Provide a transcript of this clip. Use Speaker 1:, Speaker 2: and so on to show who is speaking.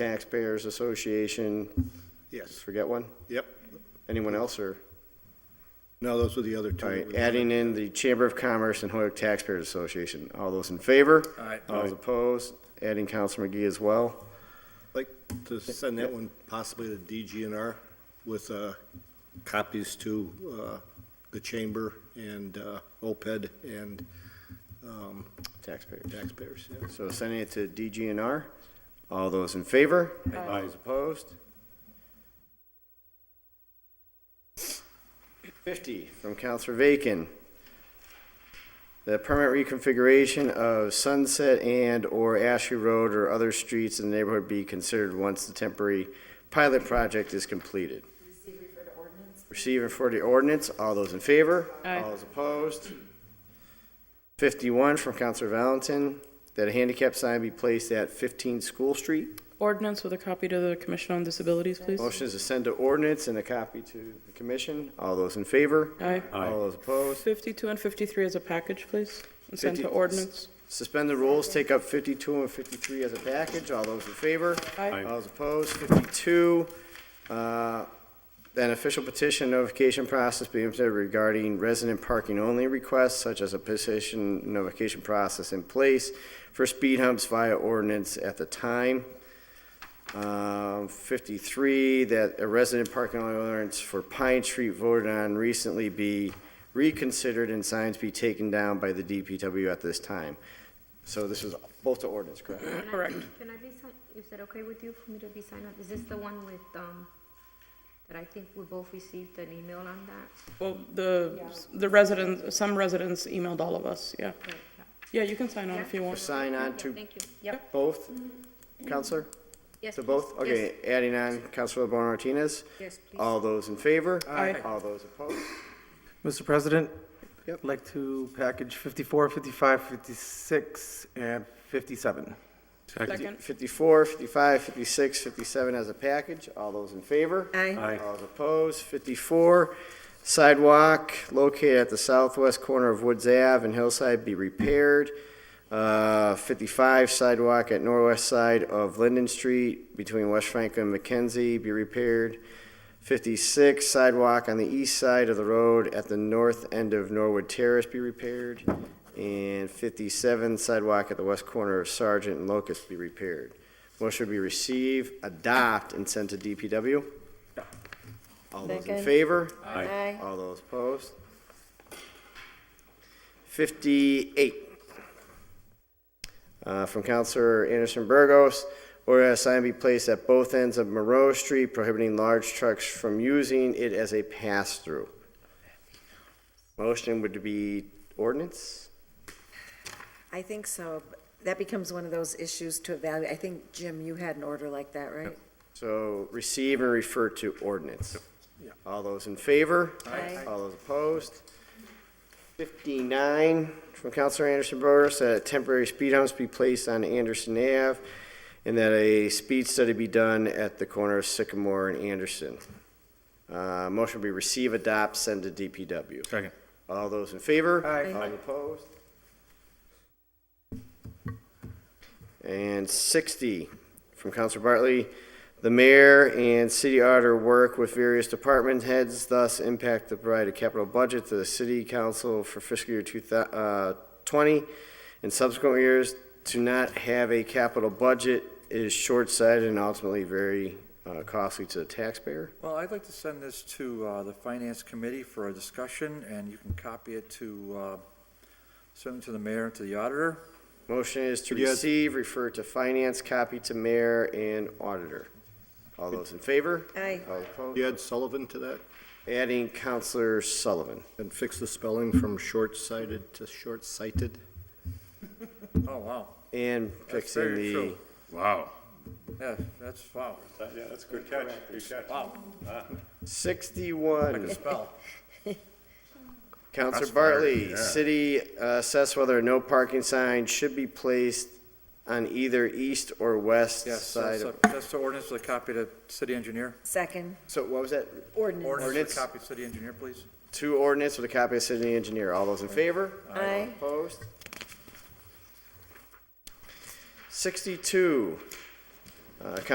Speaker 1: Taxpayers Association,
Speaker 2: Yes,
Speaker 1: forget one?
Speaker 2: yep.
Speaker 1: Anyone else, or?
Speaker 2: No, those were the other
Speaker 1: All
Speaker 2: two.
Speaker 1: right, adding in the Chamber of Commerce and Hoyok Taxpayers Association. All those in favor?
Speaker 2: Aye.
Speaker 1: All those opposed? Adding Councilor McGee as well.
Speaker 2: I'd Like to send that one possibly to DGNR with uh, copies to uh, the chamber and uh, OPED and um,
Speaker 1: Taxpayers.
Speaker 2: taxpayers. yeah.
Speaker 1: So sending it to DGNR. All those in favor? All those opposed? Fifty from Councilor Vacan. The permanent reconfiguration of Sunset and/or Ashley Road or other streets in the neighborhood be considered once the temporary pilot project is completed. Receive and refer to ordinance. All those in favor? All those opposed? Fifty-one from Councilor Valentin, that a handicap sign be placed at fifteen School Street.
Speaker 3: Ordinance with a copy to the Commission on Disabilities, please.
Speaker 1: Motion is to send to ordinance and a copy to the commission. All those in favor?
Speaker 3: Aye.
Speaker 1: All those opposed?
Speaker 3: 52 and 53 as a package, please, and send to
Speaker 1: 50
Speaker 3: ordinance.
Speaker 1: Suspend the rules, take up fifty-two and fifty-three as a package. All those in favor?
Speaker 3: Aye.
Speaker 1: All those opposed? Fifty-two, uh, that an official petition notification process be implemented regarding resident parking only requests such as a petition notification process in place for speed humps via ordinance at the time. Um, 53, that a resident parking ordinance for Pine Street voted on recently be reconsidered and signs be taken down by the DPW at this time. So this was both the ordinance, correct?
Speaker 4: Can I-
Speaker 3: Correct.
Speaker 4: Can I be signed, is that okay with you for me to be signed up? Is this the one with, um, that I think we both received an email on that?
Speaker 3: Well, the, the residents, some residents emailed all of us, yeah.
Speaker 4: Right, yeah.
Speaker 3: Yeah, you can sign on if you want.
Speaker 1: Sign on
Speaker 4: Yeah,
Speaker 1: to
Speaker 4: Thank you, yep,
Speaker 1: both, Counselor?
Speaker 4: yes.
Speaker 1: To
Speaker 4: please.
Speaker 1: both? Okay, adding on Counselor LeBron Martinez?
Speaker 4: Yes, yes, please.
Speaker 1: All those in favor?
Speaker 3: Aye.
Speaker 1: All those opposed?
Speaker 5: Mr. President?
Speaker 1: Yep.
Speaker 5: I'd like to package 54, 55, 56, and 57.
Speaker 3: Second.
Speaker 1: 54, 55, 56, 57 as a package. All those in favor?
Speaker 5: Aye.
Speaker 1: All those opposed? 54, sidewalk located at the southwest corner of Woods Ave and Hillside be repaired. Uh, 55, sidewalk at northwest side of Linden Street between West Franklin and McKenzie be repaired. 56, sidewalk on the east side of the road at the north end of Norwood Terrace be repaired. And 57, sidewalk at the west corner of Sergeant and Locust be repaired. Motion be receive, adopt, and send to DPW. All those in favor? Aye. All those opposed? Fifty-eight. Uh, from Counselor Anderson Burgos, order that a sign be placed at both ends of Monroe Street prohibiting large trucks from using it as a pass-through. Motion would be ordinance?
Speaker 6: I think so. That becomes one of those issues to evaluate. I think, Jim, you had an order like that, right?
Speaker 1: So receive and refer to ordinance. All those in favor?
Speaker 6: Aye.
Speaker 1: All those opposed? Fifty-nine from Counselor Anderson Burgos, that temporary speed humps be placed on Anderson Ave and that a speed study be done at the corner of Sycamore and Anderson. Uh, motion be receive, adopt, send to DPW.
Speaker 7: Second.
Speaker 1: All those in favor?
Speaker 5: Aye.
Speaker 1: All opposed? And 60 from Counselor Bartley. The mayor and city auditor work with various department heads, thus impact the provided capital budget to the city council for fiscal year 2020 and subsequent years. To not have a capital budget is short-sighted and ultimately very uh, costly to the taxpayer.
Speaker 7: Well, I'd like to send this to uh, the Finance Committee for a discussion, and you can copy it to, uh, send it to the mayor and to the auditor.
Speaker 1: Motion is to
Speaker 2: Could you add-
Speaker 1: receive, refer to finance, copy to mayor and auditor. All those in favor?
Speaker 6: Aye.
Speaker 1: All opposed?
Speaker 2: You add Sullivan to that
Speaker 1: Adding Counselor Sullivan.
Speaker 2: and fix the spelling from short-sighted to short-sighted?
Speaker 7: Oh, wow.
Speaker 1: And
Speaker 7: That's
Speaker 1: fixing
Speaker 7: very
Speaker 1: the,
Speaker 7: true. Yeah, that's, wow. Yeah, that's good catch, good catch. Wow, I can
Speaker 1: sixty-one,
Speaker 7: spell.
Speaker 1: Counselor
Speaker 7: That's fire,
Speaker 1: Bartley,
Speaker 7: yeah.
Speaker 1: city uh, assess whether no parking sign should be placed on either east or west
Speaker 7: Yes,
Speaker 1: side
Speaker 7: that's,
Speaker 1: of.
Speaker 7: a- that's the ordinance with a copy to city engineer.
Speaker 6: Second,
Speaker 1: So what was that?
Speaker 6: ordinance.
Speaker 7: Ordinance with
Speaker 1: Ordinance.
Speaker 7: a copy to city engineer, please.
Speaker 1: Two ordinance with a copy of city engineer. All those in favor?
Speaker 6: Aye.
Speaker 1: Opposed? Sixty-two, uh,